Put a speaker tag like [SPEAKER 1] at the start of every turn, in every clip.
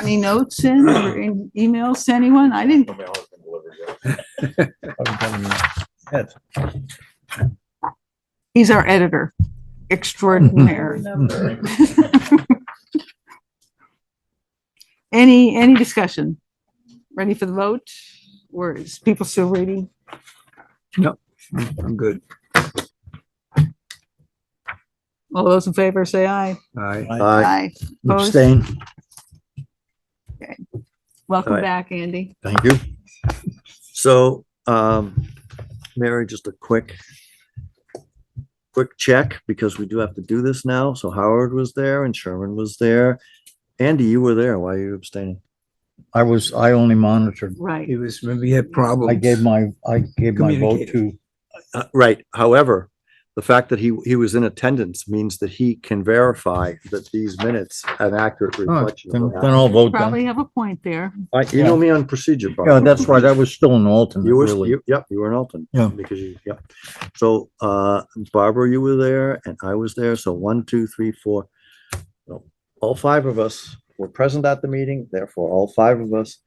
[SPEAKER 1] Any notes in or any emails to anyone? I didn't,
[SPEAKER 2] My husband delivered it.
[SPEAKER 1] he's our editor extraordinaire. Any, any discussion? Ready for the vote? Words, people still reading?
[SPEAKER 3] I'm good.
[SPEAKER 1] All those in favor say aye.
[SPEAKER 3] I
[SPEAKER 4] Aye.
[SPEAKER 1] Aye. Opposed?
[SPEAKER 4] Abstain.
[SPEAKER 1] Welcome
[SPEAKER 4] Aye.
[SPEAKER 1] back, Andy.
[SPEAKER 4] Thank you. So, um, Mary, just a quick, quick check, because we do have to do this now. So Howard was there and Sherman was there. Andy, you were there. Why are you abstaining?
[SPEAKER 5] I was, I only monitored.
[SPEAKER 1] Right.
[SPEAKER 3] It was, when we had problems.
[SPEAKER 5] I gave my, I gave my vote to,
[SPEAKER 4] Uh, right. However, the fact that he, he was in attendance means that he can verify that these minutes an accurate
[SPEAKER 5] Oh,
[SPEAKER 4] reflection.
[SPEAKER 5] then
[SPEAKER 4] of
[SPEAKER 5] then
[SPEAKER 4] what
[SPEAKER 5] I'll vote then.
[SPEAKER 1] Probably have a point there.
[SPEAKER 4] happened. I- You know me on procedure, Bob.
[SPEAKER 5] Yeah, that's right. I was still an alternate,
[SPEAKER 4] You were,
[SPEAKER 5] really.
[SPEAKER 4] you, yep, you were in Alton.
[SPEAKER 5] Yeah.
[SPEAKER 4] Because you, yep. So, uh, Barbara, you were there and I was there. So one, two, three, four. no, All five of us were present at the meeting, therefore all five of us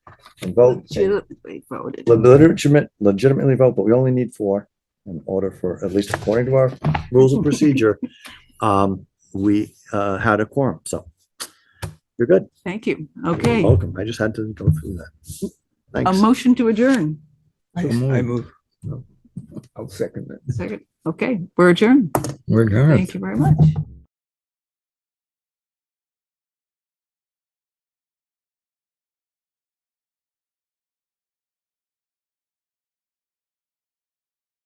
[SPEAKER 4] can vote. and
[SPEAKER 1] Legitimately voted.
[SPEAKER 4] le- Legitimate, legitimately vote, but we only need four in order for, at least according to our rules of procedure. Um, we, uh, had a quorum, so you're good.
[SPEAKER 1] Thank you.
[SPEAKER 4] You're
[SPEAKER 1] Okay.
[SPEAKER 4] Welcome. I just had to go through that.
[SPEAKER 1] A
[SPEAKER 4] Thanks.
[SPEAKER 1] motion to adjourn.
[SPEAKER 3] I I move. I'll second it.
[SPEAKER 1] Second. Okay, we're adjourned.
[SPEAKER 5] We're good.
[SPEAKER 1] Thank you very much.